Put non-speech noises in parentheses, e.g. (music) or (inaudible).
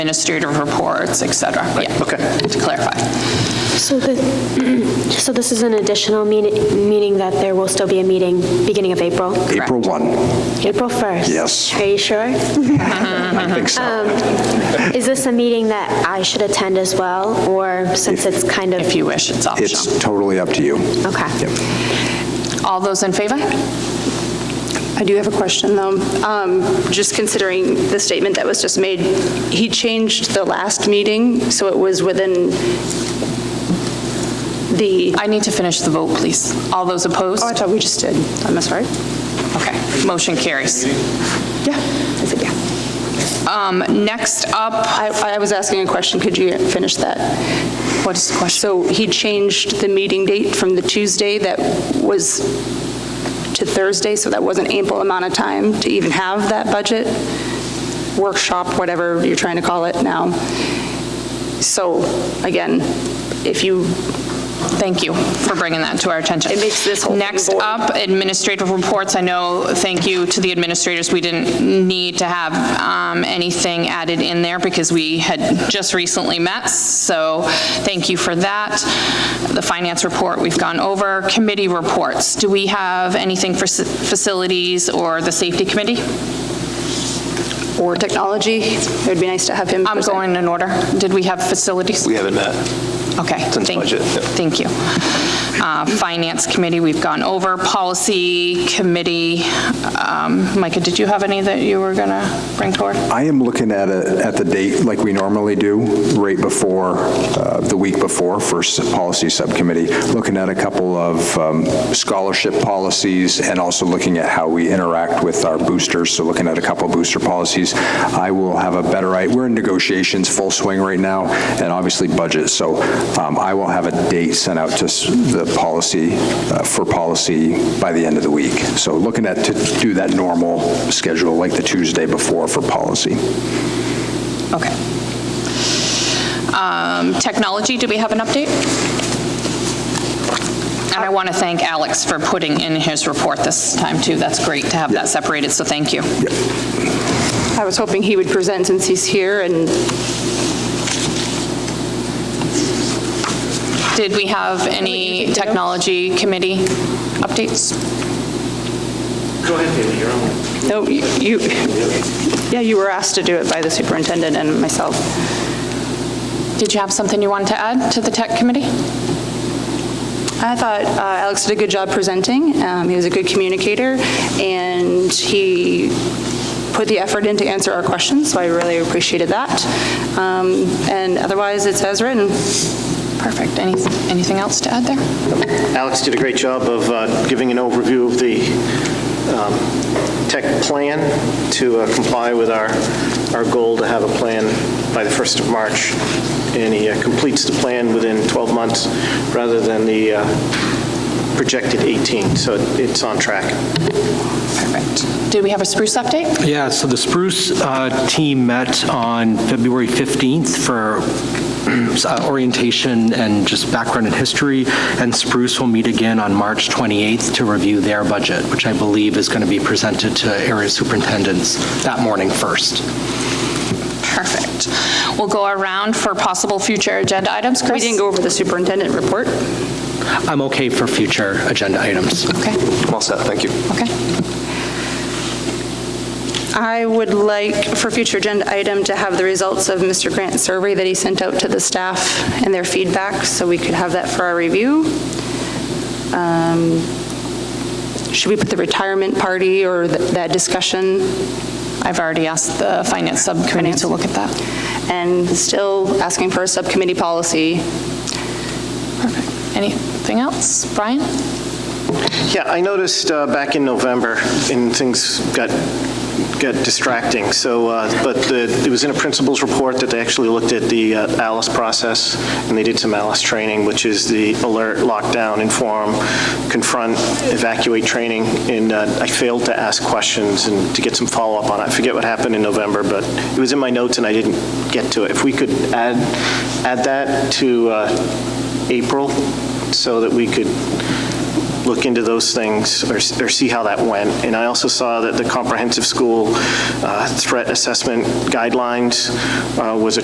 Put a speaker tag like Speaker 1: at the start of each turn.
Speaker 1: administrative reports, et cetera. Yeah,
Speaker 2: okay.
Speaker 1: To clarify.
Speaker 3: So the, (clears throat) so this is an additional meaning, meaning that there will still be a meeting beginning of April?
Speaker 2: April 1,
Speaker 3: April 1st?
Speaker 2: Yes.
Speaker 3: Are you sure? Um,
Speaker 2: I
Speaker 3: Uh,
Speaker 2: think so.
Speaker 3: Is this a meeting that I should attend as well, or since it's kind of?
Speaker 1: If you wish, it's optional.
Speaker 2: It's totally up to you.
Speaker 3: Okay.
Speaker 1: All those in favor?
Speaker 4: I do have a question, though. Um, Just considering the statement that was just made, he changed the last meeting, so it was within the,
Speaker 1: I need to finish the vote, please. All those opposed?
Speaker 4: oh, I thought we just did. I'm sorry.
Speaker 1: Okay, motion carries.
Speaker 4: Yeah, I said yeah.
Speaker 1: Um, Next up,
Speaker 4: I I was asking a question, could you finish that?
Speaker 1: what is the question?
Speaker 4: So he changed the meeting date from the Tuesday that was to Thursday, so that was an ample amount of time to even have that budget workshop, whatever you're trying to call it now. So again, if you,
Speaker 1: Thank you for bringing that to our attention.
Speaker 4: It makes this whole thing
Speaker 1: Next
Speaker 4: void.
Speaker 1: up, administrative reports. I know, thank you to the administrators, we didn't need to have um, anything added in there because we had just recently met, so thank you for that. The finance report, we've gone over. Committee reports, do we have anything for s- facilities or the safety committee?
Speaker 4: or technology, it would be nice to have him.
Speaker 1: I'm
Speaker 4: present.
Speaker 1: going in order. Did we have facilities?
Speaker 5: We haven't met.
Speaker 1: Okay.
Speaker 5: Since
Speaker 1: thank-
Speaker 5: budget, yeah.
Speaker 1: Thank you. Uh, Finance Committee, we've gone over. Policy Committee, um, Micah, did you have any that you were going to bring forward?
Speaker 2: I am looking at it, at the date like we normally do, right before, uh, the week before, first policy subcommittee, looking at a couple of um, scholarship policies and also looking at how we interact with our boosters, so looking at a couple booster policies. I will have a better, i- we're in negotiations, full swing right now, and obviously budget, so um, I will have a date sent out to s- the policy, uh, for policy by the end of the week. So looking at, to do that normal schedule, like the Tuesday before for policy.
Speaker 1: Okay. Um, Technology, do we have an update? And I want to thank Alex for putting in his report this time, too. That's great to have that separated, so thank you.
Speaker 4: I was hoping he would present since he's here, and
Speaker 1: Did we have any Technology Committee updates?
Speaker 4: no, you, yeah, you were asked to do it by the superintendent and myself.
Speaker 1: Did you have something you wanted to add to the Tech Committee?
Speaker 4: I thought uh, Alex did a good job presenting. Um, He was a good communicator, and he put the effort in to answer our questions, so I really appreciated that. Um, And otherwise, it's as written.
Speaker 1: Perfect. Any- Anything else to add there?
Speaker 5: Alex did a great job of uh, giving an overview of the um, tech plan to uh, comply with our, our goal to have a plan by the 1st of March. And he uh, completes the plan within 12 months rather than the uh, projected 18. So it's on track.
Speaker 1: Perfect. Did we have a spruce update?
Speaker 6: Yeah, so the Spruce uh, team met on February 15th for (clears throat) uh, orientation and just background and history, and Spruce will meet again on March 28th to review their budget, which I believe is going to be presented to area superintendents that morning first.
Speaker 1: Perfect. We'll go around for possible future agenda items.
Speaker 4: We
Speaker 1: Chris?
Speaker 4: didn't go over the superintendent report.
Speaker 6: I'm okay for future agenda items.
Speaker 1: Okay,
Speaker 5: I'm all set, thank you.
Speaker 1: okay.
Speaker 4: I would like for future agenda item to have the results of Mr. Grant's survey that he sent out to the staff and their feedback, so we could have that for our review. Um, Should we put the retirement party or th- that discussion
Speaker 1: I've already asked the Finance Subcommittee to look at that.
Speaker 4: and still asking for a subcommittee policy.
Speaker 1: Perfect. Anything else? Brian?
Speaker 5: Yeah, I noticed uh, back in November, and things got, got distracting, so, uh, but the- it was in a principals report that they actually looked at the uh, ALICE process, and they did some ALICE training, which is the alert, lockdown, inform, confront, evacuate training, and uh, I failed to ask questions and to get some follow-up on it. I forget what happened in November, but it was in my notes and I didn't get to it. If we could add, add that to uh, April, so that we could look into those things or or see how that went. And I also saw that the comprehensive school uh, threat assessment guidelines uh, was a